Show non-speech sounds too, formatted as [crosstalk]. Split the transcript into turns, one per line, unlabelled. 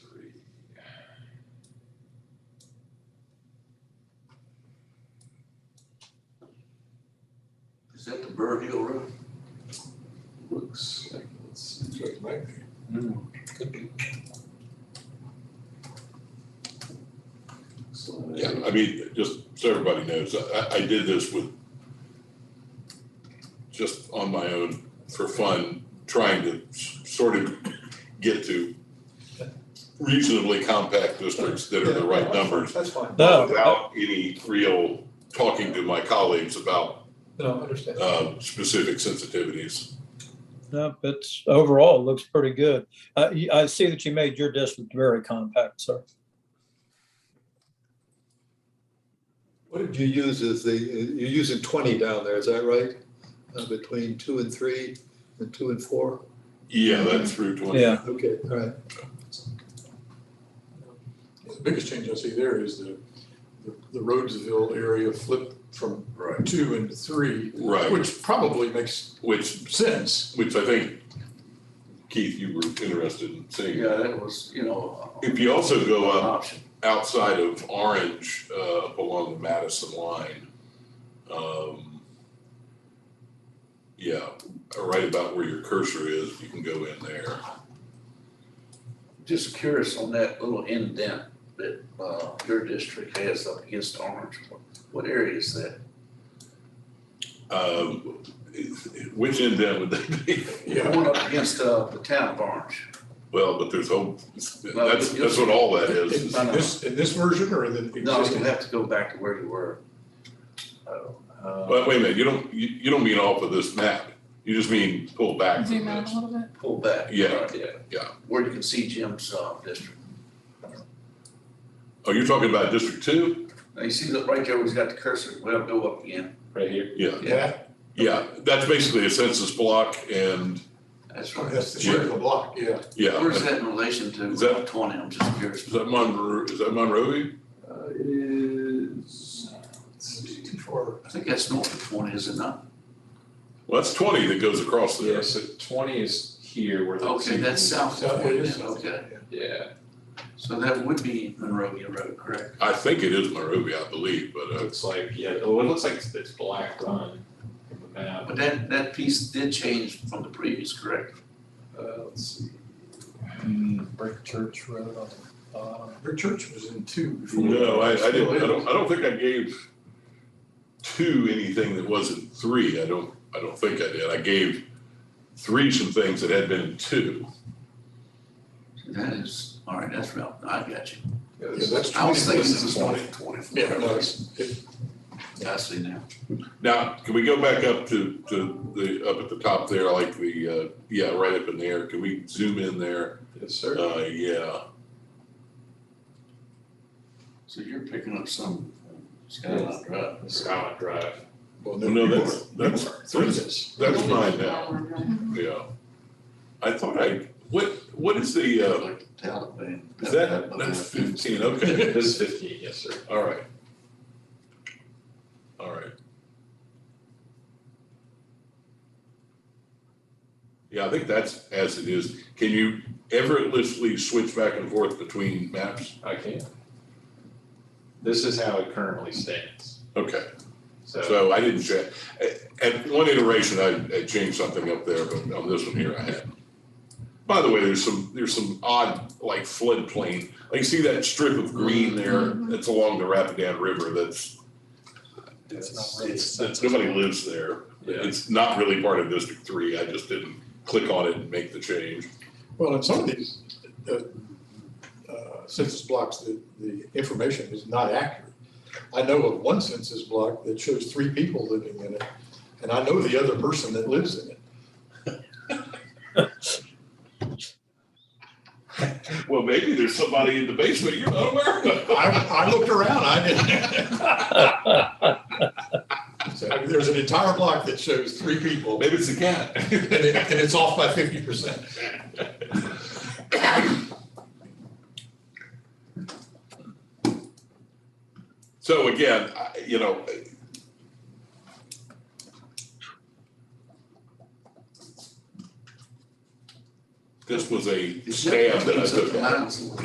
Is that the Burr Hill Road?
Looks like it's, looks like it might be. Could be. So,
Yeah, I mean, just so everybody knows, I, I did this with, just on my own for fun, trying to s- sort of get to reasonably compact districts that are the right numbers
That's fine.
No, I-
without any real talking to my colleagues about,
No, I understand.
uh, specific sensitivities.
no, it's overall it looks pretty good. Uh, y- I see that you made your district very compact, sir.
What did you use as the, you're using twenty down there, is that right? Uh, between two and three and two and four?
Yeah, that's Route twenty.
Yeah,
Okay, all right.
The biggest change I see there is the, the- the Rhodesville area flipped from
Right.
two into three,
Right, which,
which probably makes
which,
sense.
which I think, Keith, you were interested in seeing.
Yeah, that was, you know,
If you also
an
go up
option.
outside of Orange, uh, up along the Madison line. Um, yeah, right about where your cursor is, you can go in there.
Just curious on that little indent that, uh, your district has up against Orange. What area is that?
Um, which end then would that be?
The One up against, uh, the town of Orange.
Well, but there's whole, that's, that's what all that
In [laughs]
is.
No, no.
this, in this version or in the
No, you
existing?
have to go back to where you were. Oh,
But
uh,
wait a minute, you don't, you, you don't mean off of this map. You just mean pull back from
Zoom out a
this.
little bit.
Pull back.
Yeah,
right,
yeah.
Where you can see Jim's, uh, district.
Oh, you're talking about District Two?
Now you see that right there, where he's got the cursor, well, go up again.
right here.
Yeah,
Yeah,
yeah. That's basically a census block and,
That's right.
that's the shape of the block, yeah.
yeah.
Where is that in relation to
Is that-
Route twenty? I'm just curious.
Is that Monroe, is that Monrovia?
Uh, it is,
It's too far.
I think that's north of twenty, is it not?
Well, that's twenty that goes across
Yeah,
there.
so twenty is here where the.
Okay,
two-
that's south of
South
twenty
it is.
then, okay.
Yeah,
So that would be Monrovia Road, correct?
I think it is Monrovia, I believe, but, uh,
looks like, yeah, oh, it looks like it's- it's black run from the map.
But that, that piece did change from the previous, correct?
Uh, let's see,
Brick Church Road on the bottom.
your church was in two before.
no, I, I
Still
didn't, I
is.
don't, I don't think I gave two anything that wasn't three. I don't, I don't think I did. I gave three some things that had been two.
That is, all right, that's Route, I got you.
Yeah, that's twenty.
I was thinking
This
this
is
was north of twenty.
Yeah, no, it's, it,
I see now.
Now, can we go back up to, to the, up at the top there, like the, uh, yeah, right up in there? Can we zoom in there?
yes, sir.
Uh, yeah,
So you're picking up some skyline drive.
Skyline Drive.
Well,
No,
you
that's-
are. You
that's-
are. Three is.
that's mine now, yeah. I thought I, what, what is the, uh,
Like the Taliban.
Is that, that's fifteen, okay,
This is fifteen, yes, sir.
all right. All right. Yeah, I think that's as it is. Can you effortlessly switch back and forth between maps?
Okay. This is how it currently stands,
Okay,
so.
so I didn't check. At one iteration, I, I changed something up there, but on this one here, I hadn't. By the way, there's some, there's some odd, like floodplain, like you see that strip of green there that's along the Rapidan River that's
It's
It's, it's, nobody lives there.
Yeah.
It's not really part of District Three. I just didn't click on it and make the change.
Well, in some of these, uh, uh, census blocks, the, the information is not accurate. I know of one census block that shows three people living in it, and I know the other person that lives in it.
Well, maybe there's somebody in the basement you're not aware [laughs]
I,
of.
I looked around, I didn't. So, I mean, there's an entire block that shows three people,
Maybe it's a cat.
and it, and it's off by fifty percent.
[laughs] So again, I, you know. This was a stab that I took.
Miles.